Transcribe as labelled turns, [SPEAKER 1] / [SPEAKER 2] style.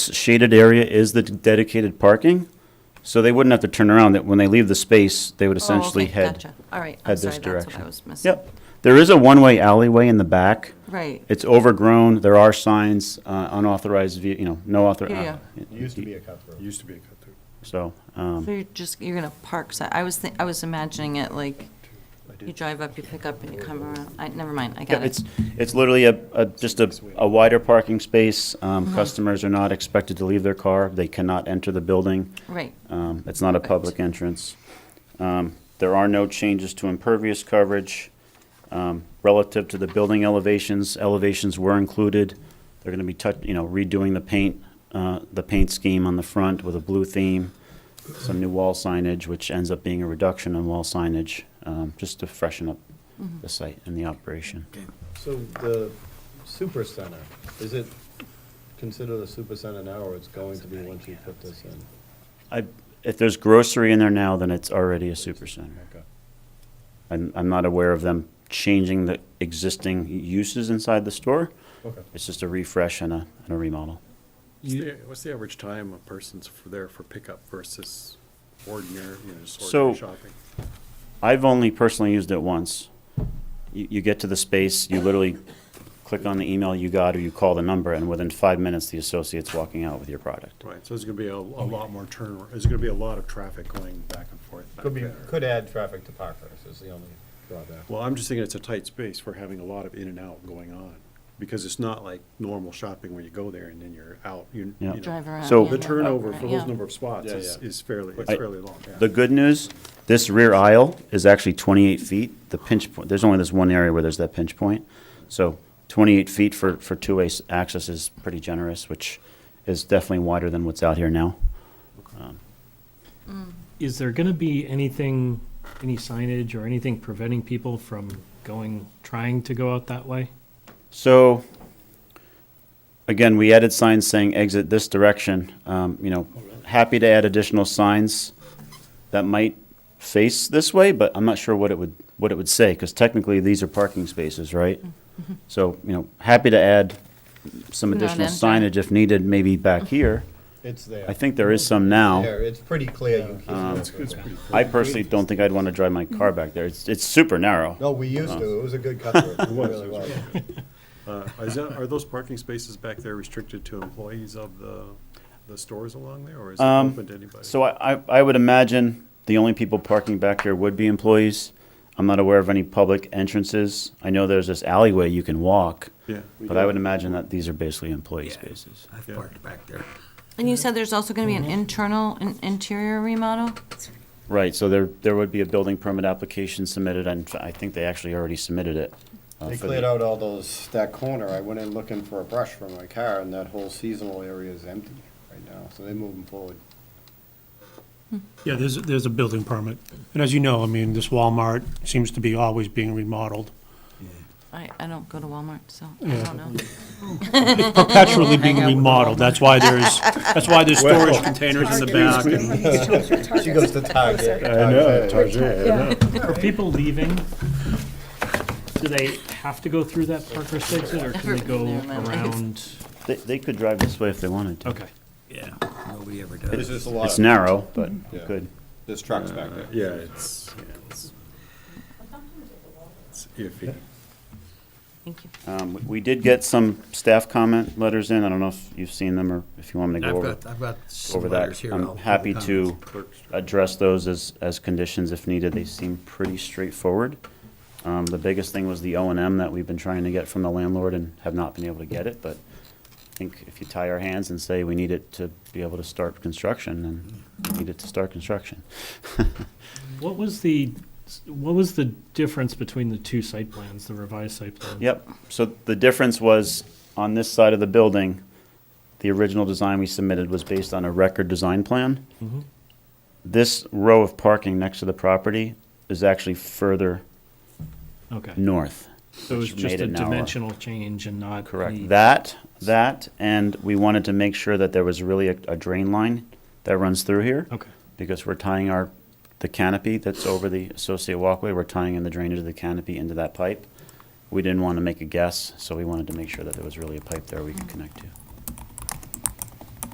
[SPEAKER 1] shaded area is the dedicated parking, so they wouldn't have to turn around, that when they leave the space, they would
[SPEAKER 2] Oh,
[SPEAKER 1] essentially
[SPEAKER 2] okay,
[SPEAKER 1] head.
[SPEAKER 2] gotcha. All right, I'm
[SPEAKER 1] head this
[SPEAKER 2] sorry, that's what
[SPEAKER 1] direction.
[SPEAKER 2] I was missing.
[SPEAKER 1] Yep. There is a one-way alleyway in the back.
[SPEAKER 2] Right,
[SPEAKER 1] It's overgrown, there are signs, uh, unauthorized, ve- you know, no author. uh,
[SPEAKER 2] Yeah, yeah.
[SPEAKER 3] Used to be a cut through. Used to be a cut through.
[SPEAKER 1] So,
[SPEAKER 2] so
[SPEAKER 1] um,
[SPEAKER 2] you're just, you're gonna park, si- I was, thi- I was imagining it like, you drive up, you pick up, and you come around, I, never mind, I
[SPEAKER 1] yeah,
[SPEAKER 2] got
[SPEAKER 1] it's,
[SPEAKER 2] it.
[SPEAKER 1] it's literally a, a, just a, a wider parking space.
[SPEAKER 2] Uh-huh.
[SPEAKER 1] Um, customers are not expected to leave their car, they cannot enter the building.
[SPEAKER 2] Right,
[SPEAKER 1] Um, It's not a
[SPEAKER 2] Correct.
[SPEAKER 1] public entrance. Um, There are no changes to impervious coverage. Um, Relative to the building elevations, elevations were included. They're going to be, tou- you know, redoing the paint, uh, the paint scheme on the front with a blue theme, some new wall signage, which ends up being a reduction in wall signage, um, just to freshen up the site and the operation.
[SPEAKER 3] So the super center, is it considered a super center now, or it's going to be once you put this in?
[SPEAKER 1] I- If there's grocery in there now, then it's already a supercenter.
[SPEAKER 3] Okay.
[SPEAKER 1] I'm, I'm not aware of them changing the existing uses inside the store.
[SPEAKER 3] Okay.
[SPEAKER 1] It's just a refresh and a, and a remodel.
[SPEAKER 4] What's the- What's the average time a person's for there for pickup versus ordinary, you know, just
[SPEAKER 1] So-
[SPEAKER 4] ordinary shopping?
[SPEAKER 1] I've only personally used it once. You, you get to the space, you literally click on the email you got or you call the number, and within five minutes, the associate's walking out with your product.
[SPEAKER 4] Right, so there's gonna be a, a lot more turn, there's gonna be a lot of traffic going back and forth. back
[SPEAKER 3] Could be,
[SPEAKER 4] there.
[SPEAKER 3] could add traffic to Parkhurst, is the only drawback.
[SPEAKER 4] Well, I'm just thinking it's a tight space for having a lot of in and out going on, because it's not like normal shopping where you go there and then you're out, you, you
[SPEAKER 1] Yeah.
[SPEAKER 4] know.
[SPEAKER 2] drive around.
[SPEAKER 1] So-
[SPEAKER 2] yeah,
[SPEAKER 4] The
[SPEAKER 2] yeah,
[SPEAKER 4] turnover for
[SPEAKER 2] right,
[SPEAKER 4] those
[SPEAKER 2] yeah.
[SPEAKER 4] number of spots
[SPEAKER 3] Yeah,
[SPEAKER 4] is,
[SPEAKER 3] yeah.
[SPEAKER 4] is fairly, it's
[SPEAKER 1] I-
[SPEAKER 4] fairly long, yeah.
[SPEAKER 1] The good news, this rear aisle is actually 28 feet. The pinch point, there's only this one area where there's that pinch point. So 28 feet for, for two-way s- access is pretty generous, which is definitely wider than what's out here now.
[SPEAKER 5] Is there going to be anything, any signage or anything preventing people from going, trying to go out that way?
[SPEAKER 1] So, again, we added signs saying exit this direction. Um, You know, happy to add additional signs that might face this way, but I'm not sure what it would, what it would say, because technically, these are parking spaces, right? So, you know, happy to add some
[SPEAKER 2] Not
[SPEAKER 1] additional
[SPEAKER 2] entering.
[SPEAKER 1] signage if needed, maybe back here.
[SPEAKER 3] It's there.
[SPEAKER 1] I think there is some now.
[SPEAKER 3] There, it's pretty clear you
[SPEAKER 4] Yeah, Um,
[SPEAKER 3] can't.
[SPEAKER 4] It's, it's pretty. clear.
[SPEAKER 1] um, I personally don't think I'd want to drive my car back there. It's, it's super narrow.
[SPEAKER 3] No, we used to, it was a good cut through, it
[SPEAKER 4] was,
[SPEAKER 3] really
[SPEAKER 4] it was.
[SPEAKER 3] was.
[SPEAKER 4] Uh, is that, are those parking spaces back there restricted to employees of the, the stores along there, or is it
[SPEAKER 1] Um,
[SPEAKER 4] open to anybody?
[SPEAKER 1] So I, I- I would imagine the only people parking back here would be employees. I'm not aware of any public entrances. I know there's this alleyway you can walk,
[SPEAKER 4] Yeah. we
[SPEAKER 1] but
[SPEAKER 4] do.
[SPEAKER 1] I would imagine that these are basically employee spaces.
[SPEAKER 6] I've
[SPEAKER 4] Yeah.
[SPEAKER 6] parked back there.
[SPEAKER 2] And you said there's also gonna be an
[SPEAKER 1] Mm-hmm.
[SPEAKER 2] internal, an interior remodel?
[SPEAKER 1] Right, so there, there would be a building permit application submitted, and I think they actually already submitted it. uh,
[SPEAKER 3] They
[SPEAKER 1] for the-
[SPEAKER 3] cleared out all those, that corner, I went in looking for a brush for my car, and that whole seasonal area is empty right now, so they're moving forward.
[SPEAKER 7] Yeah, there's, there's a building permit. And as you know, I mean, this Walmart seems to be always being remodeled,
[SPEAKER 2] I, I don't go to Walmart, so I don't know.
[SPEAKER 7] perpetually being remodeled. That's why there's, that's why there's storage containers in the back. and-
[SPEAKER 3] She goes to Target.
[SPEAKER 5] Are people leaving? Do they have to go through that Parkhurst exit or can they go
[SPEAKER 2] Never mind.
[SPEAKER 5] around?
[SPEAKER 1] They, they could drive this way if they wanted to.
[SPEAKER 5] Okay.
[SPEAKER 6] Yeah, nobody ever
[SPEAKER 3] There's
[SPEAKER 6] does.
[SPEAKER 3] just a lot
[SPEAKER 1] It's
[SPEAKER 3] of,
[SPEAKER 1] narrow, but you
[SPEAKER 3] Yeah.
[SPEAKER 1] could.
[SPEAKER 3] there's trucks back there.
[SPEAKER 4] Yeah, it's, yeah, it's. It's iffy.
[SPEAKER 2] Thank you.
[SPEAKER 1] Um, we- We did get some staff comment letters in. I don't know if you've seen them or if you want me to go
[SPEAKER 6] I've
[SPEAKER 1] over.
[SPEAKER 6] got, I've got some
[SPEAKER 1] over
[SPEAKER 6] letters
[SPEAKER 1] that.
[SPEAKER 6] here. I'll-
[SPEAKER 1] I'm happy to
[SPEAKER 4] Clerk's job.
[SPEAKER 1] address those as, as conditions if needed. They seem pretty straightforward. Um, the biggest thing was the O and M that we've been trying to get from the landlord and have not been able to get it, but I think if you tie our hands and say we need it to be able to start construction, then we need it to start construction.
[SPEAKER 5] What was the, what was the difference between the two site plans, the revised site plan?
[SPEAKER 1] Yep, so the difference was, on this side of the building, the original design we submitted was based on a record design plan.
[SPEAKER 5] Mhm.
[SPEAKER 1] This row of parking next to the property is actually further
[SPEAKER 5] Okay.
[SPEAKER 1] north.
[SPEAKER 5] So it was
[SPEAKER 1] which
[SPEAKER 5] just
[SPEAKER 1] made
[SPEAKER 5] a
[SPEAKER 1] it narrower.
[SPEAKER 5] dimensional change and not.
[SPEAKER 1] Correct.
[SPEAKER 5] the-
[SPEAKER 1] That, that, and we wanted to make sure that there was really a, a drain line that runs through here.
[SPEAKER 5] Okay.
[SPEAKER 1] Because we're tying our, the canopy that's over the associate walkway, we're tying in the drainage of the canopy into that pipe. We didn't want to make a guess, so we wanted to make sure that there was really a pipe there we could connect to.